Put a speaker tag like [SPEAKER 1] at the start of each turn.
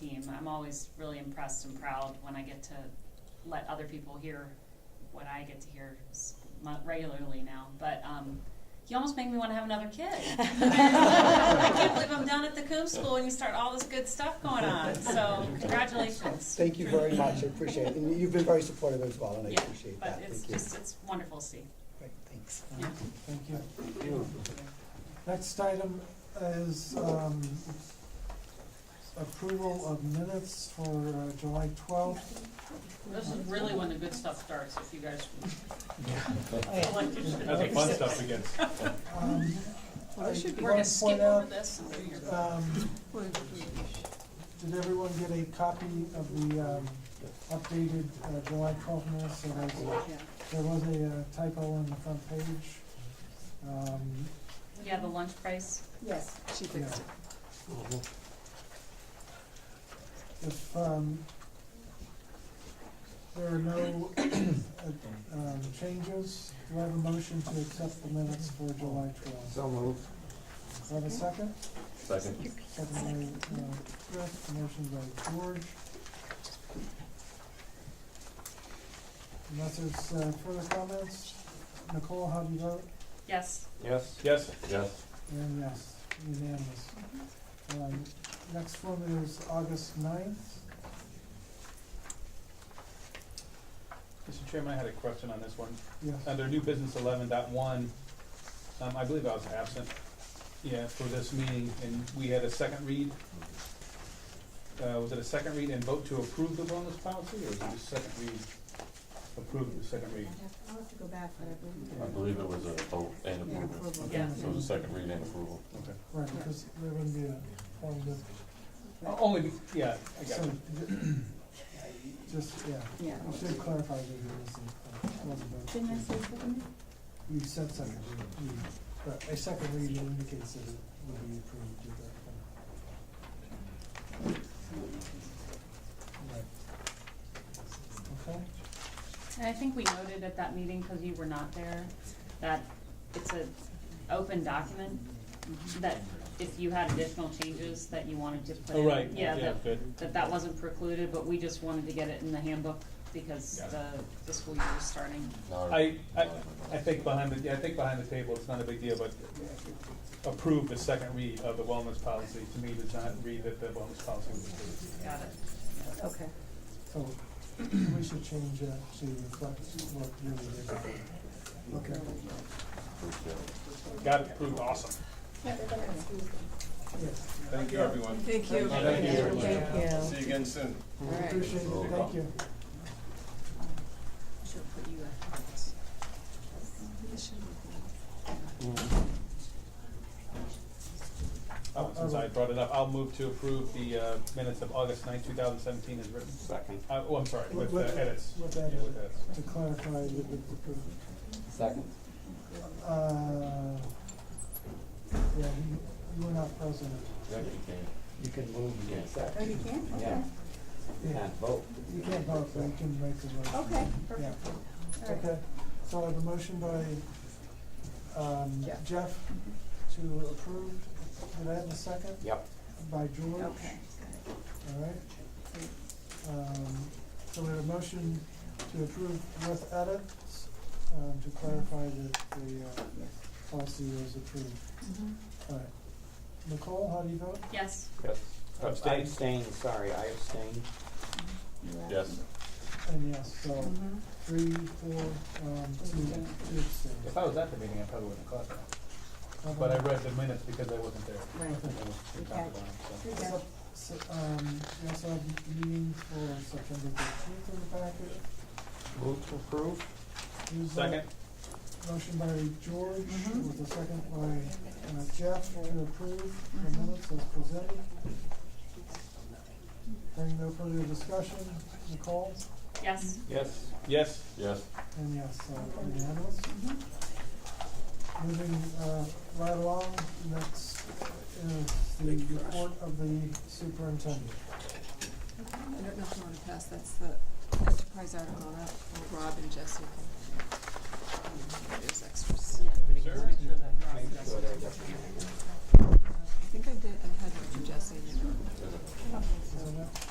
[SPEAKER 1] and I'm always really impressed and proud when I get to let other people hear what I get to hear s- mo- regularly now. But um, you almost make me want to have another kid. I can't believe I'm down at the Coombs School and you start all this good stuff going on. So congratulations.
[SPEAKER 2] Thank you very much, I appreciate it, and you've been very supportive as well, and I
[SPEAKER 1] Yeah,
[SPEAKER 2] appreciate
[SPEAKER 1] but
[SPEAKER 2] that,
[SPEAKER 1] it's
[SPEAKER 2] thank you.
[SPEAKER 1] just it's wonderful to see.
[SPEAKER 2] Great, thanks.
[SPEAKER 1] Yeah.
[SPEAKER 3] Thank you. Next item is um, approval of minutes for uh, July twelfth.
[SPEAKER 1] This is really when the good stuff starts. If you guys
[SPEAKER 4] That's the fun stuff again.
[SPEAKER 3] Um, I
[SPEAKER 1] we're gonna
[SPEAKER 3] wanna
[SPEAKER 1] skip
[SPEAKER 3] point
[SPEAKER 1] over
[SPEAKER 3] out,
[SPEAKER 1] this and do your
[SPEAKER 3] um, did everyone get a copy of the um, updated uh, July twelfth minutes? So there's- There was a uh, typo on the front page. Um,
[SPEAKER 1] yeah the lunch price.
[SPEAKER 5] Yes, she
[SPEAKER 3] Yeah.
[SPEAKER 5] fixed it.
[SPEAKER 3] If, um, there are no, uh, um, changes, do I have a motion to accept the minutes for July twelfth?
[SPEAKER 6] So moved.
[SPEAKER 3] Do I have a second?
[SPEAKER 4] Second.
[SPEAKER 3] Second by, uh, Chris, motion by George. Unless there's, uh, further comments, Nicole, how do you vote?
[SPEAKER 1] Yes.
[SPEAKER 4] Yes. Yes. Yes.
[SPEAKER 3] And yes, unanimous. Um, next one is August ninth.
[SPEAKER 4] Mr. Chairman, I had a question on this one.
[SPEAKER 3] Yes.
[SPEAKER 4] Under new business eleven dot one, um, I believe I was absent, yeah, for this meeting, and we had a second read. Uh, was it a second read and vote to approve the wellness policy, or was it just second read, approve the second read?
[SPEAKER 5] I'll have to go back, but
[SPEAKER 7] I
[SPEAKER 5] I
[SPEAKER 7] believe it was a vote and
[SPEAKER 5] believe. And
[SPEAKER 7] approval.
[SPEAKER 5] approval.
[SPEAKER 1] Yeah.
[SPEAKER 7] So it was a second read and approval.
[SPEAKER 3] Right, because there wouldn't be a point of,
[SPEAKER 4] O- Only, be- yeah, I got
[SPEAKER 3] so,
[SPEAKER 4] it.
[SPEAKER 3] ju- just, yeah,
[SPEAKER 5] Yeah.
[SPEAKER 3] we should clarify that it was a, was a vote.
[SPEAKER 5] Didn't I say something?
[SPEAKER 3] You said second reading, but a second reading indicates that it would be approved at that point. Right. Okay,
[SPEAKER 1] And I think we noted at that meeting, because you were not there, that it's a open document, that if you had additional changes that you wanted to put in.
[SPEAKER 4] Oh, right,
[SPEAKER 1] Yeah,
[SPEAKER 4] yeah,
[SPEAKER 1] that,
[SPEAKER 4] good.
[SPEAKER 1] that that wasn't precluded, but we just wanted to get it in the handbook because
[SPEAKER 4] Got it.
[SPEAKER 1] the, the school year is starting.
[SPEAKER 7] Now-
[SPEAKER 4] I, I, I think behind the, yeah, I think behind the table, it's not a big deal, but approve the second read of the wellness policy, to me, does not read that the wellness policy was approved.
[SPEAKER 1] Got it.
[SPEAKER 5] Okay.
[SPEAKER 3] so we should change that to reflect what really is. Okay,
[SPEAKER 4] Got it approved, awesome.
[SPEAKER 3] yes,
[SPEAKER 4] Thank you, everyone.
[SPEAKER 5] Thank you.
[SPEAKER 4] Thank you.
[SPEAKER 5] Thank
[SPEAKER 4] See you again soon.
[SPEAKER 5] All right.
[SPEAKER 3] appreciate it, thank you.
[SPEAKER 1] Should put you after this.
[SPEAKER 4] Oh, Since I brought it up, I'll move to approve the uh, minutes of August ninth, two thousand seventeen as written.
[SPEAKER 6] Second.
[SPEAKER 4] Uh, oh, I'm sorry, with the
[SPEAKER 3] With-
[SPEAKER 4] edits.
[SPEAKER 3] with that
[SPEAKER 4] Yeah,
[SPEAKER 3] edit.
[SPEAKER 4] edits.
[SPEAKER 3] To clarify that it's approved.
[SPEAKER 6] Second.
[SPEAKER 3] Uh, yeah, you, you were not present.
[SPEAKER 7] Yeah, you can.
[SPEAKER 6] You can move, you can
[SPEAKER 5] Oh,
[SPEAKER 6] second.
[SPEAKER 5] you can? Okay.
[SPEAKER 6] Yeah. You can't vote.
[SPEAKER 3] You can't vote, but you can make the motion.
[SPEAKER 5] Okay,
[SPEAKER 3] Yeah,
[SPEAKER 5] Oh, perfect. All right.
[SPEAKER 3] okay. So I have a motion by, um,
[SPEAKER 5] Jeff.
[SPEAKER 3] Jeff to approve. Did I have a second?
[SPEAKER 6] Yep.
[SPEAKER 3] By George.
[SPEAKER 5] Okay.
[SPEAKER 3] All right. Um, so we have a motion to approve with edits, um, to clarify that the, uh, policy was approved.
[SPEAKER 7] Mm-hmm.
[SPEAKER 5] Mhm.
[SPEAKER 3] All right. Nicole, how do you vote?
[SPEAKER 1] Yes,
[SPEAKER 6] Yes.
[SPEAKER 4] Abstain.
[SPEAKER 6] I abstain, sorry, I abstain.
[SPEAKER 5] You're
[SPEAKER 7] Yes.
[SPEAKER 3] And yes, so.
[SPEAKER 5] out. Mhm.
[SPEAKER 3] Three, four, um, two, two abstains.
[SPEAKER 4] If I was at the meeting, I probably wouldn't have caught that, but I read the minutes because I wasn't there.
[SPEAKER 5] Right.
[SPEAKER 4] I was in
[SPEAKER 5] Okay.
[SPEAKER 4] Copacabana, so.
[SPEAKER 5] Here you go.
[SPEAKER 3] So, um, we also have a meeting for September thirteenth in the packet.
[SPEAKER 6] Move to approve?
[SPEAKER 3] Who's that?
[SPEAKER 4] Second,
[SPEAKER 3] Motion by George,
[SPEAKER 5] Mhm.
[SPEAKER 3] with a second by uh, Jeff to approve the
[SPEAKER 5] Mhm.
[SPEAKER 3] minutes as presented. Hearing no further discussion, Nicole,
[SPEAKER 1] yes.
[SPEAKER 6] Yes.
[SPEAKER 4] yes,
[SPEAKER 7] Yes.
[SPEAKER 3] and yes, uh, unanimous. Moving, uh, right along, next is the report of the superintendent.
[SPEAKER 8] I don't know if you wanna pass, that's the enterprise article, that, or Rob and Jessica.
[SPEAKER 5] Um,
[SPEAKER 8] There's extras.
[SPEAKER 1] Yeah.
[SPEAKER 4] Sure.
[SPEAKER 8] I think I did, I had one for Jesse.
[SPEAKER 3] Is that it?